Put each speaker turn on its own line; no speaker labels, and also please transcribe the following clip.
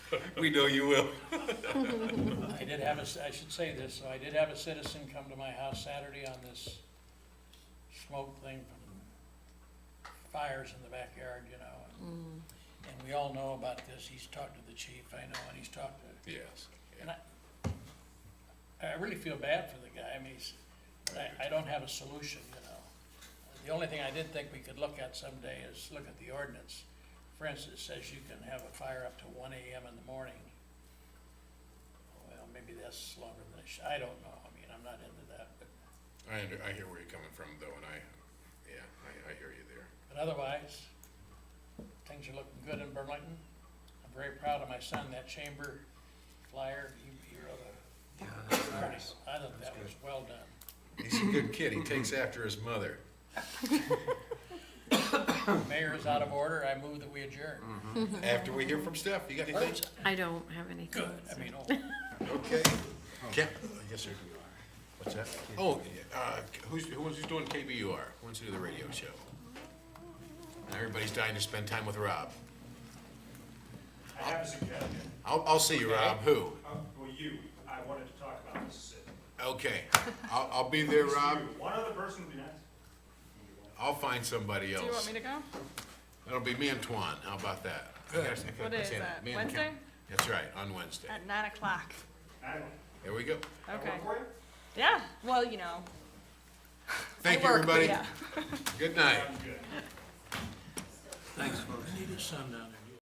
We know you will.
I did have a, ci- I should say this, so I did have a citizen come to my house Saturday on this smoke thing from fires in the backyard, you know. and- And we all know about this, he's talked to the chief, I know, and he's talked to,
Yes.
and I, I really feel bad for the guy, I mean, he's, I, I don't have a solution, you know. The only thing I did think we could look at someday is look at the ordinance. For instance, it says you can have a fire up to one AM in the morning. Well, maybe that's longer than it should, I don't know, I mean, I'm not into that, but,
I under, I hear where you're coming from though, and I, yeah, I, I hear you there.
but otherwise, things are looking good in Burlington. I'm very proud of my son, that chamber flyer, he, he wrote a, I thought that was well done.
He's a good kid. He takes after his mother.
Mayor is out of order, I move that we adjourn.
After we hear from Steph, you got anything?
I don't have anything.
Good, I
so-
mean, oh,
Okay. Oh, Yes, sir. What's that? Oh, uh, who's, who's doing KBUR? Who wants to do the radio show? Now Everybody's dying to spend time with Rob.
I have a suggestion.
I'll, I'll see you, Rob. Who?
Uh, Well, you, I wanted to talk about Mississippi.
Okay. I'll, I'll be there, Rob.
You, One other person would be nice.
I'll find somebody else.
Do you want me to go?
That'll be me and Tuan. How about that?
What is that,
Me and Ken.
Wednesday?
That's right, on Wednesday.
At nine o'clock.
I don't,
There we go.
I
Okay.
work for you.
Yeah, well, you know.
Thank
I
you,
work, but
everybody.
yeah.
Good night.
I'm good.
I need his son down there.